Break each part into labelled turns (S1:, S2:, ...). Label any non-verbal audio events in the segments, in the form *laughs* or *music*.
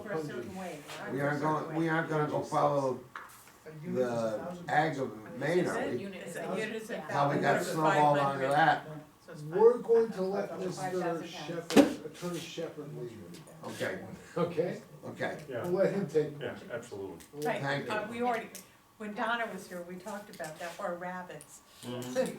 S1: for a certain way. or I'm
S2: We
S1: for a
S2: aren't going,
S1: certain
S2: we
S1: way.
S2: aren't gonna go follow the ag of Maine, are
S3: It's a
S2: we?
S3: unit,
S1: It's
S3: it's
S1: a
S3: a-
S1: unit, it's a
S3: yeah.
S2: How we got
S1: thousand,
S2: snowballed
S1: five
S2: onto
S1: hundred.
S2: that,
S1: So it's fine.
S4: We're going to let
S1: Five
S4: Mr.
S1: thousand pounds.
S4: Shepherd, Attorney Shepherd leave,
S2: okay,
S4: okay?
S2: okay,
S5: Yeah,
S4: We'll let him take.
S5: yeah, absolutely.
S4: we'll let-
S2: Thank
S1: Right,
S2: you.
S1: uh, we already, when Donna was here, we talked about that, or rabbits.
S6: *laughs* I'm sorry,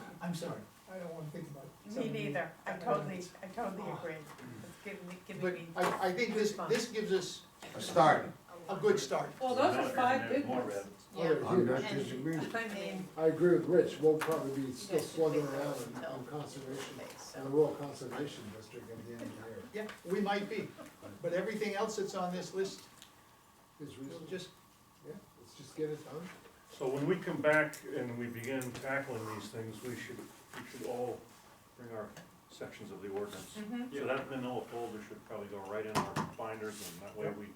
S6: I don't wanna think about it.
S1: Me neither, I totally, I totally
S4: Oh.
S1: agree. It's giving me, giving
S6: But
S1: me.
S6: I, I think this, this gives us
S2: a start,
S6: a good start.
S1: Well, those are five good
S5: More
S1: ones.
S5: red.
S3: Yeah.
S4: Oh,
S2: I'm
S4: huge.
S2: not disagreeing.
S1: I mean,
S4: I agree with Rich, we'll probably be still
S3: guys should
S4: slugging
S3: fix
S4: around
S3: those
S4: in-
S3: until-
S4: on conservation,
S3: Okay,
S4: in the
S3: so,
S4: rural conservation district at the end of the year.
S6: Yeah, we might be, but everything else that's on this list,
S4: It's
S6: we'll
S4: reasonable,
S6: just,
S4: yeah, let's just get it done.
S5: So when we come back and we begin tackling these things, we should, we should all bring our sections of the ordinance.
S1: mhm.
S5: So that manila folder should probably go right in our binders and that way we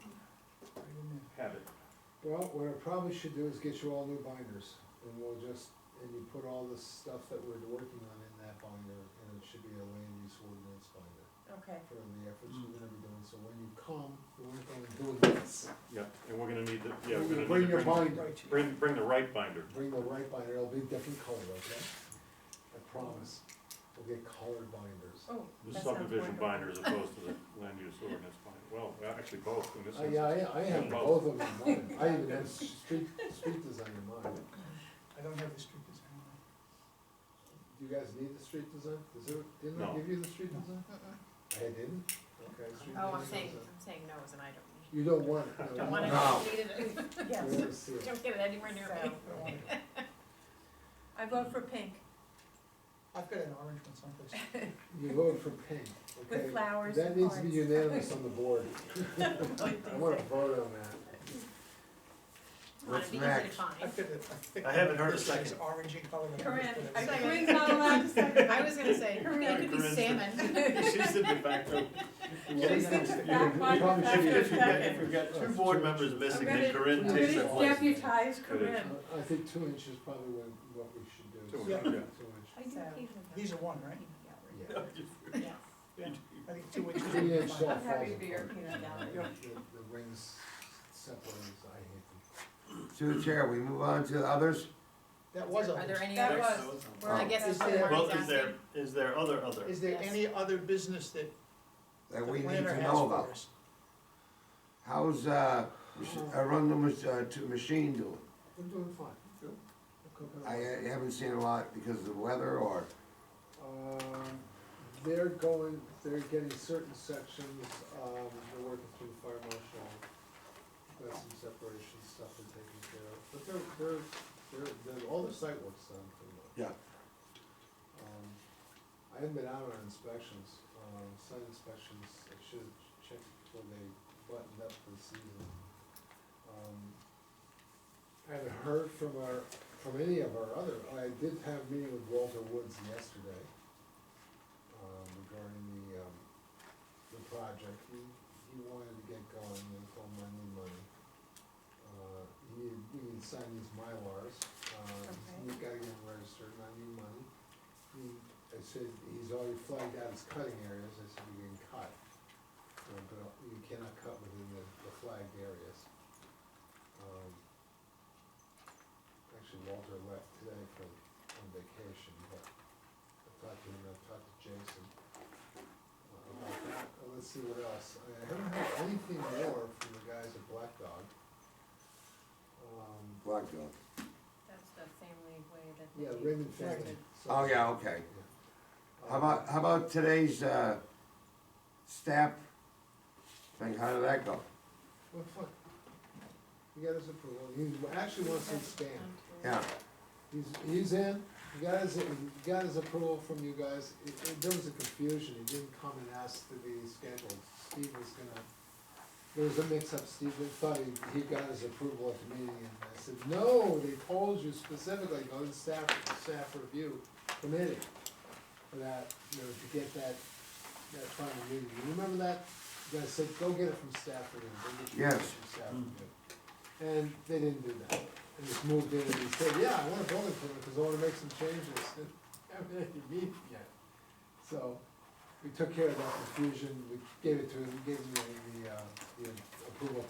S5: have it.
S4: Well, what I probably should do is get you all new binders, and we'll just, and you put all the stuff that we're working on in that binder, and it should be a land use ordinance binder.
S1: Okay,
S4: for the efforts you're gonna be doing, so when you come, you aren't gonna do this.
S5: Yeah, and we're gonna need the, yeah, we're gonna need to
S4: Bring your
S5: bring,
S4: binder,
S5: bring, bring the right binder.
S4: bring the right binder, it'll be different color, okay? I promise, we'll get colored binders.
S1: oh,
S5: The
S1: that sounds
S5: subdivision
S1: wonderful.
S5: binder as opposed to the land use ordinance binder. Well, actually both in this
S7: Oh,
S4: I, yeah,
S5: instance.
S4: I, I have both of them in mind, I even have street, street design in mind.
S6: I don't have the street design.
S4: Do you guys need the street design? Is there, didn't I
S5: No.
S4: give you the street design?
S3: Mm-mm.
S4: I didn't? Okay. street
S3: oh, I'm
S4: design
S3: saying,
S4: goes on.
S3: I'm saying no is an item.
S4: You don't want it. no,
S3: Don't
S4: you
S3: wanna,
S2: No.
S3: need *laughs* it,
S4: We're
S1: Yes,
S4: gonna see it.
S3: don't get it anywhere near me.
S4: Don't want it.
S3: *laughs*
S1: I vote for pink,
S6: I've got an orange one someplace.
S4: You voted for pink, okay?
S1: with flowers
S4: That
S1: and
S4: needs
S1: hearts.
S4: to
S1: *laughs*
S4: be unanimous on the board. I
S1: Good
S4: wanna
S1: thing.
S4: vote on that.
S2: What's
S3: It'd be easy to
S2: next?
S3: find.
S6: I've got a-
S7: I haven't heard a
S6: It's like
S7: second.
S6: Orangey color.
S1: Corinne, are
S3: Second.
S1: Corinne's not allowed to second.
S3: *laughs* I was gonna say, it could be
S7: Corinne's-
S3: *laughs* salmon.
S7: She said de facto.
S1: *laughs* She said
S7: If
S1: the
S7: you-
S1: back one,
S4: probably
S1: that's
S4: should-
S1: her
S7: If you've got, if
S1: second.
S7: you've got two board members
S1: I'm
S7: missing,
S1: gonna,
S7: then
S1: I'm
S7: Corinne takes her
S1: gonna
S7: place.
S1: deputize Corinne.
S4: I- I think two inches probably what, what we should do.
S5: Two
S4: Two
S5: inches, yeah.
S4: inch.
S1: I do occasionally
S6: These are one, right?
S4: Yeah.
S3: Yeah.
S6: I think two inches.
S4: Three inch shell
S1: I'm happy to
S4: falls
S1: be your
S4: apart.
S1: peanut gallery.
S4: The, the rings separates, I hate
S2: To the chair, we move on to others,
S6: That was
S3: Are there
S6: orange.
S3: any
S1: That
S3: other,
S1: was-
S3: or I guess
S6: Is
S3: that's what
S6: there-
S3: Marty's
S7: Well, is there,
S3: asking.
S7: is there other, other?
S6: Is there
S3: Yes.
S6: any other business that the
S2: that we need
S6: planner
S2: to
S6: has
S2: know
S6: for
S2: about.
S6: us?
S2: How's, uh, mach- Arundel, mach- uh, to machine doing?
S4: them. I'm doing fine. I'm cooking
S2: I
S4: alright.
S2: uh, haven't seen a lot because of the weather or,
S4: Um, They're going, they're getting certain sections, um, they're working through the fire marshal. Got some separation stuff they're taking care of, but they're, they're, they're, they're, all the site work's done pretty much.
S2: Yeah.
S4: Um, I haven't been out on inspections, um, site inspections, I should have checked before they buttoned up for the season. Um, I haven't heard from our, from any of our other, I did have a meeting with Walter Woods yesterday um, regarding the, um, the project. He, he wanted to get going, and told him I need money. Uh, he needed, we need to sign these Mylars, um,
S1: Okay.
S4: he's gotta get them registered, and I need money. He, I said, he's already flagged out his cutting areas, I said, you can cut, uh, but you cannot cut within the, the flagged areas. Um, Actually, Walter left today for, on vacation, but I talked to him, I talked to Jason. uh, about that. Uh, Let's see what else. I haven't heard anything more from the guys at Black Dog. Um,
S2: black dog.
S3: That's the family way that.
S4: Yeah,
S3: they-
S4: Raymond family.
S2: Oh, yeah, okay.
S4: Yeah.
S2: How about, how about today's, uh, staff thing, how did that go?
S4: Well, fun. He got his approval. He actually wants to expand.
S2: Yeah,
S4: He's, he's in, he got his, he got his approval from you guys, it, it, there was a confusion, he didn't come and ask to be scheduled, Steve was gonna, there was a mix-up, Steve had thought he, he got his approval at the meeting, and I said, no, they told you specifically, go to staff, staff review committee, for that, you know, to get that, that final meeting, you remember that? You guys said, go get it from staff review, go get your
S2: Yes.
S4: from staff review. And they didn't do that. They just moved in and they said, yeah, I want a building permit because I want to make some changes. *laughs* And I haven't had any meeting yet. So we took care of that confusion. We gave it to him, we gave him the, the, uh, the approval